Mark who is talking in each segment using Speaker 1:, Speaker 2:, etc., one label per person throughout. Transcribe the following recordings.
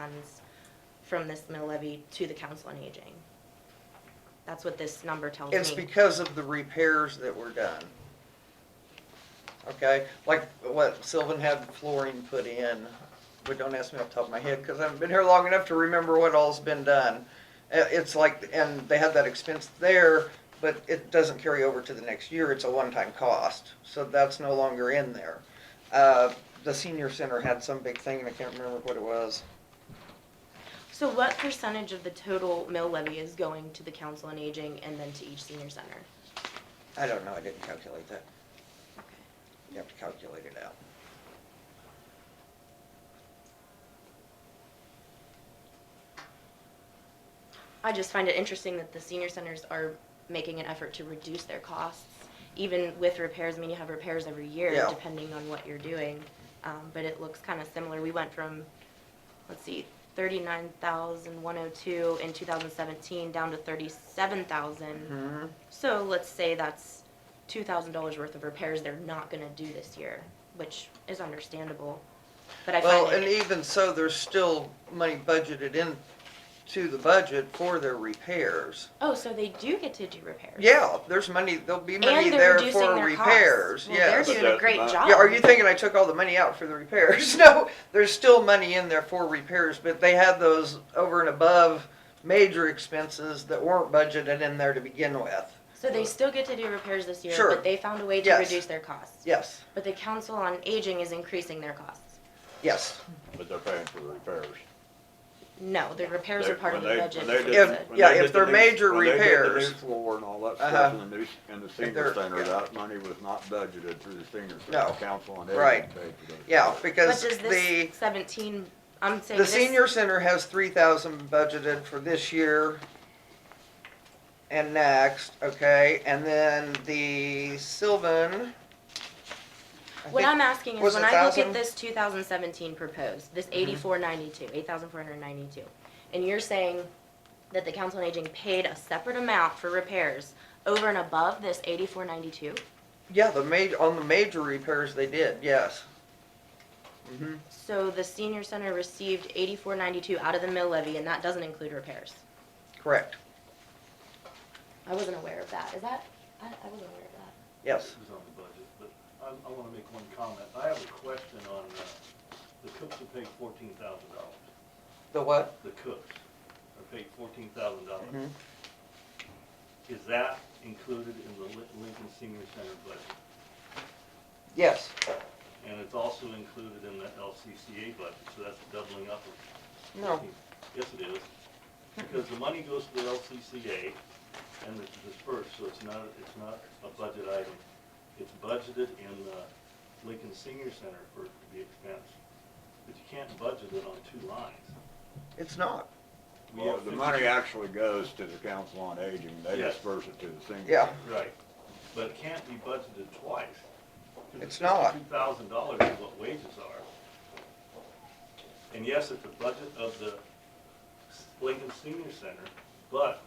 Speaker 1: funds from this mill levy to the council on aging. That's what this number tells
Speaker 2: It's
Speaker 1: me.
Speaker 2: because of the repairs that were done. Okay, like what Sylvan had flooring put in, but don't ask me off the top of my head, cause I haven't been here long enough to remember what all's been done. Uh, It's like, and they had that expense there, but it doesn't carry over to the next year, it's a one-time cost, so that's no longer in there. Uh, the senior center had some big thing, and I can't remember what it was.
Speaker 1: So what percentage of the total mill levy is going to the council on aging and then to each senior center?
Speaker 2: I don't know, I didn't calculate that. You have to calculate it out.
Speaker 1: I just find it interesting that the senior centers are making an effort to reduce their costs, even with repairs, I mean, you have repairs every year,
Speaker 2: Yeah.
Speaker 1: depending on what you're doing. Um, but it looks kinda similar, we went from, let's see, thirty-nine thousand one oh two in two thousand seventeen, down to thirty-seven thousand.
Speaker 2: Hmm.
Speaker 1: So let's say that's two thousand dollars worth of repairs they're not gonna do this year, which is understandable, but I
Speaker 2: Well,
Speaker 1: find
Speaker 2: and e-
Speaker 1: it,
Speaker 2: even so, there's still money budgeted in to the budget for their repairs.
Speaker 1: oh, so they do get to do repairs?
Speaker 2: Yeah, there's money, there'll be money
Speaker 1: And they're
Speaker 2: there
Speaker 1: reducing
Speaker 2: for
Speaker 1: their
Speaker 2: repairs,
Speaker 1: costs. Well,
Speaker 2: yes.
Speaker 1: They're doing a great
Speaker 3: But
Speaker 1: job.
Speaker 2: Yeah, are you thinking I took all the money out for the repairs? No, there's still money in there for repairs, but they had those over and above major expenses that weren't budgeted in there to begin with.
Speaker 1: So they still get to do repairs this year,
Speaker 2: Sure.
Speaker 1: but they found a way to
Speaker 2: Yes.
Speaker 1: reduce their costs.
Speaker 2: Yes,
Speaker 1: But the council on aging is increasing their costs.
Speaker 2: yes.
Speaker 3: But they're paying for the repairs.
Speaker 1: No, the repairs are
Speaker 3: They-
Speaker 1: part of the
Speaker 3: when they-
Speaker 1: budget.
Speaker 3: when they did-
Speaker 1: is what it
Speaker 2: If-
Speaker 1: said.
Speaker 3: when
Speaker 2: yeah,
Speaker 3: they
Speaker 2: if
Speaker 3: did the
Speaker 2: they're
Speaker 3: new-
Speaker 2: major
Speaker 3: when they did the
Speaker 2: repairs.
Speaker 3: new floor and all that
Speaker 2: Uh-huh.
Speaker 3: stuff and the new, and the
Speaker 2: they're-
Speaker 3: senior center,
Speaker 2: yeah.
Speaker 3: that money was not budgeted through the senior
Speaker 2: No.
Speaker 3: center council and
Speaker 2: Right.
Speaker 3: everything paid for those.
Speaker 2: Yeah,
Speaker 3: repairs.
Speaker 1: But
Speaker 2: because
Speaker 1: does
Speaker 2: the,
Speaker 1: this seventeen, I'm saying
Speaker 2: the
Speaker 1: this.
Speaker 2: senior center has three thousand budgeted for this year and next, okay, and then the Sylvan. I
Speaker 1: What
Speaker 2: think-
Speaker 1: I'm asking is
Speaker 2: was
Speaker 1: when
Speaker 2: it Mm-hmm.
Speaker 1: I look
Speaker 2: 1,000?
Speaker 1: at this two thousand seventeen proposed, this eighty-four ninety-two, eight thousand four hundred ninety-two. And you're saying that the council on aging paid a separate amount for repairs over and above this eighty-four ninety-two?
Speaker 2: Yeah, the ma- on the major repairs they did, yes. hmm
Speaker 1: So the senior center received eighty-four ninety-two out of the mill levy and that doesn't include repairs?
Speaker 2: correct,
Speaker 1: I wasn't aware of that. Is that, I, I wasn't aware of that.
Speaker 2: yes.
Speaker 4: It was on the budget, but I, I wanna make one comment. I have a question on, uh, the cooks are paid fourteen thousand dollars.
Speaker 2: The what?
Speaker 4: The cooks are paid fourteen
Speaker 2: Mhm.
Speaker 4: thousand dollars. Is that included in the Lin- Lincoln Senior Center budget?
Speaker 2: Yes,
Speaker 4: And it's also included in the LCCA budget, so that's doubling up of
Speaker 2: no,
Speaker 4: Yes, it is, because the money goes to the LCCA and it's dispersed, so it's not, it's not a budget item. It's budgeted in the Lincoln Senior Center for it to be expensed, but you can't budget it on two lines.
Speaker 2: it's not,
Speaker 4: We
Speaker 3: Well,
Speaker 4: have
Speaker 3: the
Speaker 4: fifty-
Speaker 3: money actually goes to the council on aging, they
Speaker 4: Yes.
Speaker 3: disperse it to the senior.
Speaker 2: yeah,
Speaker 3: center.
Speaker 4: Right, but it can't be budgeted twice.
Speaker 2: It's not.
Speaker 4: Two thousand dollars is what wages are. And yes, it's a budget of the Lincoln Senior Center, but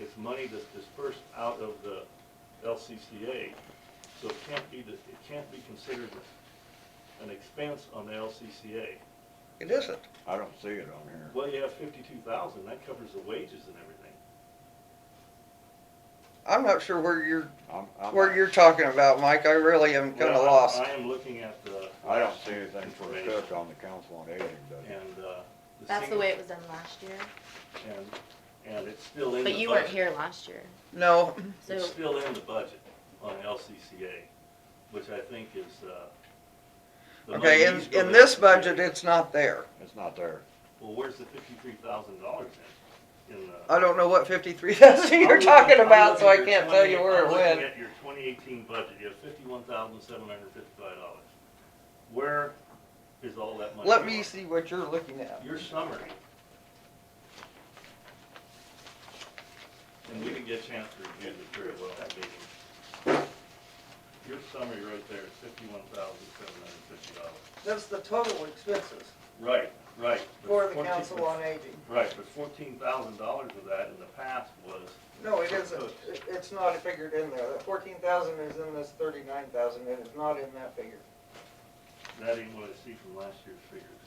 Speaker 4: it's money that's dispersed out of the LCCA. So it can't be, the- it can't be considered an expense on the LCCA.
Speaker 2: it isn't.
Speaker 3: I don't see it on here.
Speaker 4: Well, you have fifty-two thousand, that covers the wages and everything.
Speaker 2: I'm not sure where you're,
Speaker 3: I'm, I'm,
Speaker 2: where you're talking about, Mike, I really am kinda
Speaker 4: Well, I-
Speaker 2: lost.
Speaker 4: I am looking at the.
Speaker 3: I don't see anything for a
Speaker 4: information.
Speaker 3: cook on the council on aging budget.
Speaker 4: And, uh. the
Speaker 1: That's the
Speaker 4: senior-
Speaker 1: way it was done last year.
Speaker 4: And, and it's still in the budget.
Speaker 1: But you weren't here last year,
Speaker 2: No,
Speaker 1: so
Speaker 4: It's still in the budget on LCCA, which I think is, uh. the money
Speaker 2: okay, in,
Speaker 4: used by
Speaker 2: in
Speaker 4: the
Speaker 2: this
Speaker 4: LCCA.
Speaker 2: budget, it's not there.
Speaker 3: It's not there.
Speaker 4: Well, where's the fifty-three thousand dollars in, in the?
Speaker 2: I don't know what fifty-three thousand Uh, you're talking about, so I can't tell you where it
Speaker 4: I'm looking
Speaker 2: went.
Speaker 4: at your twenty eighteen budget, you have fifty-one thousand seven hundred fifty-five dollars. Where is all that money?
Speaker 2: Let me
Speaker 4: going?
Speaker 2: see what you're looking at.
Speaker 4: Your summary. And we didn't get a chance to review this very well that meeting. Your summary right there is fifty-one thousand seven hundred and fifty dollars.
Speaker 2: That's the total expenses
Speaker 4: Right, right. but
Speaker 2: for the
Speaker 4: 14
Speaker 2: council on aging.
Speaker 4: Right, but fourteen thousand dollars of that in the past was.
Speaker 2: No, it isn't, It- it's not figured in there. The fourteen thousand is in this thirty-nine thousand, it is not in that figure.
Speaker 4: That ain't what I see from last year's figures.